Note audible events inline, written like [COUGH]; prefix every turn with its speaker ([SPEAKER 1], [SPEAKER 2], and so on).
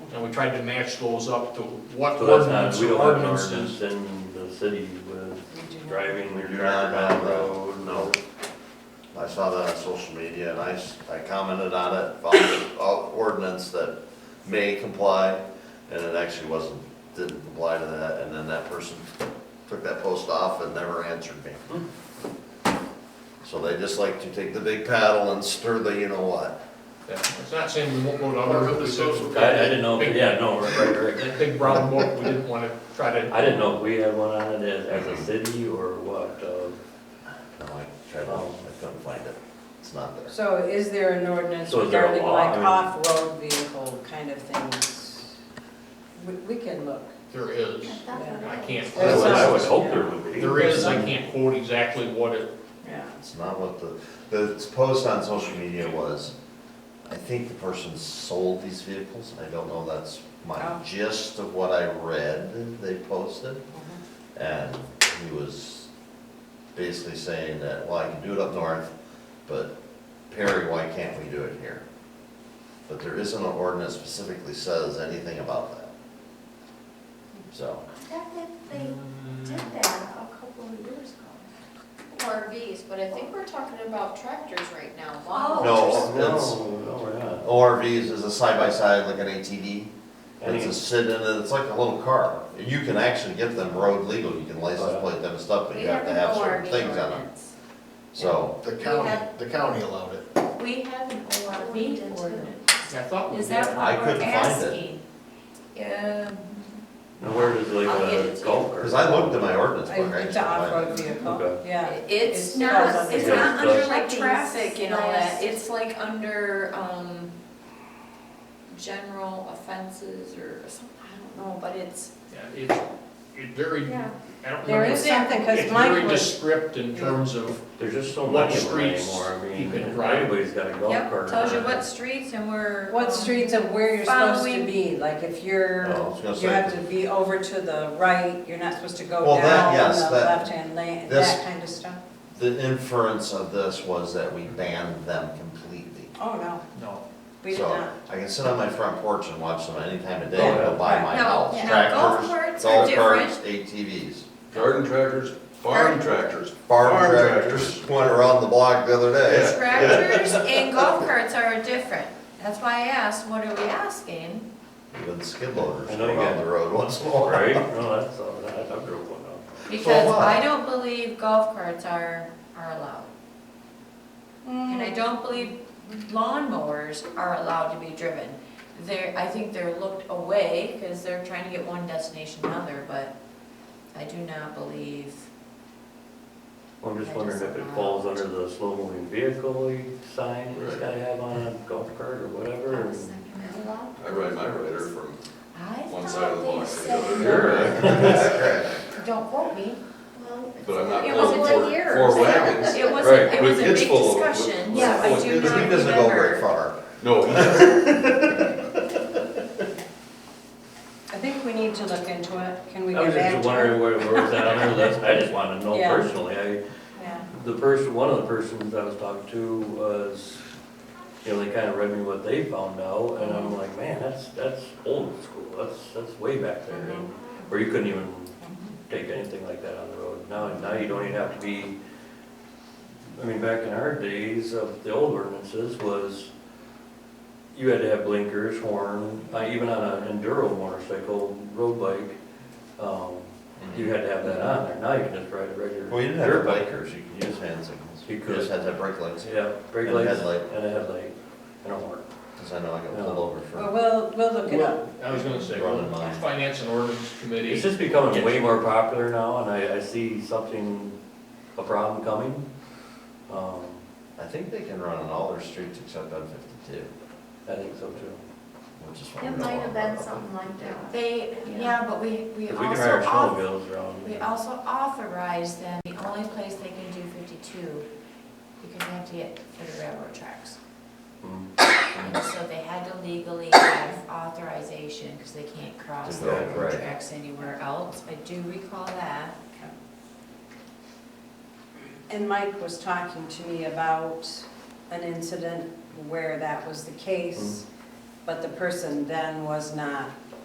[SPEAKER 1] and we tried to match those up to what
[SPEAKER 2] So that's not,
[SPEAKER 1] ordinance
[SPEAKER 2] we
[SPEAKER 1] or
[SPEAKER 2] don't have an
[SPEAKER 1] ordinances.
[SPEAKER 2] ordinance in the city with driving
[SPEAKER 3] We
[SPEAKER 2] your
[SPEAKER 3] do
[SPEAKER 2] car
[SPEAKER 3] not have
[SPEAKER 2] down the
[SPEAKER 3] that.
[SPEAKER 2] road.
[SPEAKER 3] No. I saw that on social media and I, s- I commented on it, found an ordinance that may comply, and it actually wasn't, didn't comply to that, and then that person took that post off and never answered me. So they just like to take the big paddle and stir the, you know what?
[SPEAKER 1] Yeah, It's not saying we won't go to
[SPEAKER 4] Or
[SPEAKER 1] other.
[SPEAKER 4] with the social
[SPEAKER 1] we
[SPEAKER 2] I, I didn't know, if- yeah, no, right, right, right.
[SPEAKER 1] That big brown book, we didn't wanna try to,
[SPEAKER 2] I didn't know if we had one on it as, as a city or what, uh,
[SPEAKER 3] No, I tried, to- I couldn't find it, it's not there.
[SPEAKER 5] So is there an ordinance
[SPEAKER 2] So is there a
[SPEAKER 5] regarding
[SPEAKER 2] law? I
[SPEAKER 5] like
[SPEAKER 2] mean-
[SPEAKER 5] off-road vehicle kind of things? We, we can look.
[SPEAKER 1] there is, I can't.
[SPEAKER 2] I would, I would
[SPEAKER 5] There's-
[SPEAKER 2] hope there would be.
[SPEAKER 1] There is, I can't quote exactly what it,
[SPEAKER 5] Yeah.
[SPEAKER 3] It's not what the, the post on social media was, I think the person sold these vehicles, I don't know, that's my
[SPEAKER 5] Oh.
[SPEAKER 3] gist of what I read they posted. And he was basically saying that, well, I can do it up north, but Perry, why can't we do it here? But there isn't an ordinance specifically says anything about that. So,
[SPEAKER 6] thought that they did that a couple of years ago.
[SPEAKER 7] RVs, but I think we're talking about tractors right now.
[SPEAKER 6] Oh.
[SPEAKER 3] no, it's,
[SPEAKER 2] No, no, we're not.
[SPEAKER 3] ORVs is a side-by-side, like an ATV.
[SPEAKER 2] I
[SPEAKER 3] It's a
[SPEAKER 2] think-
[SPEAKER 3] sit-in, and it's like a little car. You can actually get them road legal, you can
[SPEAKER 2] Oh,
[SPEAKER 3] license plate them and stuff, but
[SPEAKER 7] We
[SPEAKER 3] you have to
[SPEAKER 7] an
[SPEAKER 3] have certain
[SPEAKER 7] ORV
[SPEAKER 3] things on them.
[SPEAKER 7] ordinance.
[SPEAKER 3] So,
[SPEAKER 4] The
[SPEAKER 7] We
[SPEAKER 4] county,
[SPEAKER 7] have-
[SPEAKER 4] the county allowed it.
[SPEAKER 6] We have an ORV
[SPEAKER 7] Ordinance.
[SPEAKER 6] ordinance.
[SPEAKER 1] I thought we
[SPEAKER 6] Is
[SPEAKER 1] did.
[SPEAKER 6] that
[SPEAKER 3] I
[SPEAKER 6] what we're
[SPEAKER 3] couldn't find
[SPEAKER 6] asking? Um,
[SPEAKER 2] Now, where does like
[SPEAKER 6] I'll get it
[SPEAKER 2] a
[SPEAKER 6] to
[SPEAKER 2] golf cart?
[SPEAKER 3] because I looked at my ordinance book, I
[SPEAKER 5] I-
[SPEAKER 3] actually
[SPEAKER 5] It's an
[SPEAKER 3] find
[SPEAKER 5] off-road
[SPEAKER 3] it.
[SPEAKER 5] vehicle,
[SPEAKER 2] Okay.
[SPEAKER 5] yeah.
[SPEAKER 7] It's
[SPEAKER 5] It's
[SPEAKER 7] not,
[SPEAKER 5] not
[SPEAKER 7] it's
[SPEAKER 2] under-
[SPEAKER 7] not under like
[SPEAKER 6] Trucking
[SPEAKER 7] traffic and all that,
[SPEAKER 6] list.
[SPEAKER 7] it's like under, um, general offenses or something, I don't know, but it's,
[SPEAKER 1] Yeah, it, it very, I
[SPEAKER 7] Yeah.
[SPEAKER 1] don't remember.
[SPEAKER 5] There is something, because
[SPEAKER 1] It's very
[SPEAKER 5] Mike was,
[SPEAKER 1] descript in terms of,
[SPEAKER 2] There's just so
[SPEAKER 1] What
[SPEAKER 2] many of them
[SPEAKER 1] streets
[SPEAKER 2] anymore, I
[SPEAKER 1] you
[SPEAKER 2] mean,
[SPEAKER 1] can drive.
[SPEAKER 2] everybody's got a golf
[SPEAKER 6] Yep,
[SPEAKER 2] cart.
[SPEAKER 6] tells you
[SPEAKER 2] now.
[SPEAKER 6] what streets and where.
[SPEAKER 5] what
[SPEAKER 6] um,
[SPEAKER 5] streets of where you're supposed to
[SPEAKER 6] Following-
[SPEAKER 5] be, like if
[SPEAKER 3] Oh, I
[SPEAKER 5] you're,
[SPEAKER 3] was gonna
[SPEAKER 5] you have
[SPEAKER 3] say,
[SPEAKER 5] to be over to the right, you're not supposed to
[SPEAKER 3] Well,
[SPEAKER 5] go
[SPEAKER 3] that-
[SPEAKER 5] down
[SPEAKER 3] yes,
[SPEAKER 5] the
[SPEAKER 3] that-
[SPEAKER 5] left-hand lane,
[SPEAKER 3] this-
[SPEAKER 5] that kind of stuff.
[SPEAKER 3] the inference of this was that we banned them completely.
[SPEAKER 5] Oh, no,
[SPEAKER 1] no,
[SPEAKER 5] we did
[SPEAKER 3] So
[SPEAKER 5] not.
[SPEAKER 3] I can sit on my front porch and watch them any time of day
[SPEAKER 2] Oh,
[SPEAKER 3] and go by my
[SPEAKER 6] No,
[SPEAKER 3] house.
[SPEAKER 6] no,
[SPEAKER 3] Tractors,
[SPEAKER 6] golf carts are
[SPEAKER 3] golf
[SPEAKER 6] different.
[SPEAKER 3] carts, ATVs.
[SPEAKER 4] Garden tractors, farm tractors.
[SPEAKER 3] Farm tractors, went around the block the other day.
[SPEAKER 6] Tractors and golf carts are different. That's why I asked, what are we asking?
[SPEAKER 3] Even skid loaders
[SPEAKER 2] I know you
[SPEAKER 3] around
[SPEAKER 2] got-
[SPEAKER 3] the road once in a
[SPEAKER 2] [LAUGHS]
[SPEAKER 3] while.
[SPEAKER 2] Right, no, that's, all- that- I drove one out.
[SPEAKER 6] Because
[SPEAKER 3] what?
[SPEAKER 6] I don't believe golf carts are, are allowed. And I
[SPEAKER 5] Mm.
[SPEAKER 6] don't believe lawnmowers are allowed to be driven. They're, I think they're looked away because they're trying to get one destination to another, but I do not believe.
[SPEAKER 2] I'm just
[SPEAKER 6] I
[SPEAKER 2] wondering
[SPEAKER 6] just-
[SPEAKER 2] if it falls under the slow moving vehicle sign you has
[SPEAKER 4] Right.
[SPEAKER 2] gotta have on a golf cart or whatever. and-
[SPEAKER 4] I ride my rider from
[SPEAKER 6] I
[SPEAKER 4] one side of the block
[SPEAKER 6] thought
[SPEAKER 4] to
[SPEAKER 6] they
[SPEAKER 4] the other.
[SPEAKER 6] said, don't quote me,
[SPEAKER 4] But I'm not
[SPEAKER 6] It
[SPEAKER 4] pulling
[SPEAKER 6] was a
[SPEAKER 4] four,
[SPEAKER 7] year.
[SPEAKER 4] four wagons.
[SPEAKER 6] it was,
[SPEAKER 2] Right,
[SPEAKER 6] a- it
[SPEAKER 4] with
[SPEAKER 6] was a
[SPEAKER 4] kids
[SPEAKER 6] big
[SPEAKER 4] full of- with-
[SPEAKER 6] discussion,
[SPEAKER 4] with
[SPEAKER 6] yeah, I
[SPEAKER 4] full
[SPEAKER 6] do
[SPEAKER 4] kids.
[SPEAKER 6] not
[SPEAKER 3] He
[SPEAKER 6] remember.
[SPEAKER 3] doesn't go very far.
[SPEAKER 4] No, he doesn't.
[SPEAKER 5] I think we need to look into it, can we
[SPEAKER 2] I was
[SPEAKER 5] get back
[SPEAKER 2] just
[SPEAKER 5] to it?
[SPEAKER 2] wondering where, where was that on there, that's, I just wanna know
[SPEAKER 5] Yeah.
[SPEAKER 2] personally, I,
[SPEAKER 6] Yeah.
[SPEAKER 2] the person, one of the persons I was talking to was, you know, they kinda read me what they found out, and I'm like, man, that's, that's old school, that's, that's way back there. and- Where you couldn't even take anything like that on the road, now, now you don't even have to be, I mean, back in our days of the old ordinances was, you had to have blinkers, horn, uh, even on an enduro motorcycle, road bike, um, you had to have that on there, now you can just ride a regular.
[SPEAKER 3] Well, you didn't have
[SPEAKER 2] dirt bike.
[SPEAKER 3] bikers, you could use hand signals.
[SPEAKER 2] You
[SPEAKER 3] You
[SPEAKER 2] could.
[SPEAKER 3] just had to have brake lights,
[SPEAKER 2] Yeah, brake
[SPEAKER 3] And a
[SPEAKER 2] lights
[SPEAKER 3] headlight.
[SPEAKER 2] and a headlight and a horn.
[SPEAKER 3] because I know I got
[SPEAKER 2] No.
[SPEAKER 3] pulled over
[SPEAKER 5] Well,
[SPEAKER 3] for
[SPEAKER 5] we'll, we'll look it up.
[SPEAKER 1] I was gonna say,
[SPEAKER 3] running mine.
[SPEAKER 1] finance and ordinance committee.
[SPEAKER 2] It's just becoming way more popular now and I, I see something, a problem coming. Um,
[SPEAKER 3] I think they can run on all their streets except on fifty-two,
[SPEAKER 2] I think so too.
[SPEAKER 3] which is what we
[SPEAKER 7] It
[SPEAKER 3] don't
[SPEAKER 7] might
[SPEAKER 3] want
[SPEAKER 7] have
[SPEAKER 3] to
[SPEAKER 7] been
[SPEAKER 3] run.
[SPEAKER 7] something like that.
[SPEAKER 6] They, yeah, but we, we
[SPEAKER 2] Cause
[SPEAKER 6] also.
[SPEAKER 2] we can ride our
[SPEAKER 6] auth-
[SPEAKER 2] snowmobiles
[SPEAKER 6] We
[SPEAKER 2] around.
[SPEAKER 6] also authorize them, the only place they can do fifty-two, because they have to get for the railroad tracks.
[SPEAKER 2] Mm.
[SPEAKER 6] And so they had to legally have authorization, because they can't cross
[SPEAKER 3] To
[SPEAKER 6] the
[SPEAKER 3] go, right.
[SPEAKER 6] railroad tracks anywhere else. I do recall that.
[SPEAKER 5] And Mike was talking to me about an incident where that was the case, but the person then was not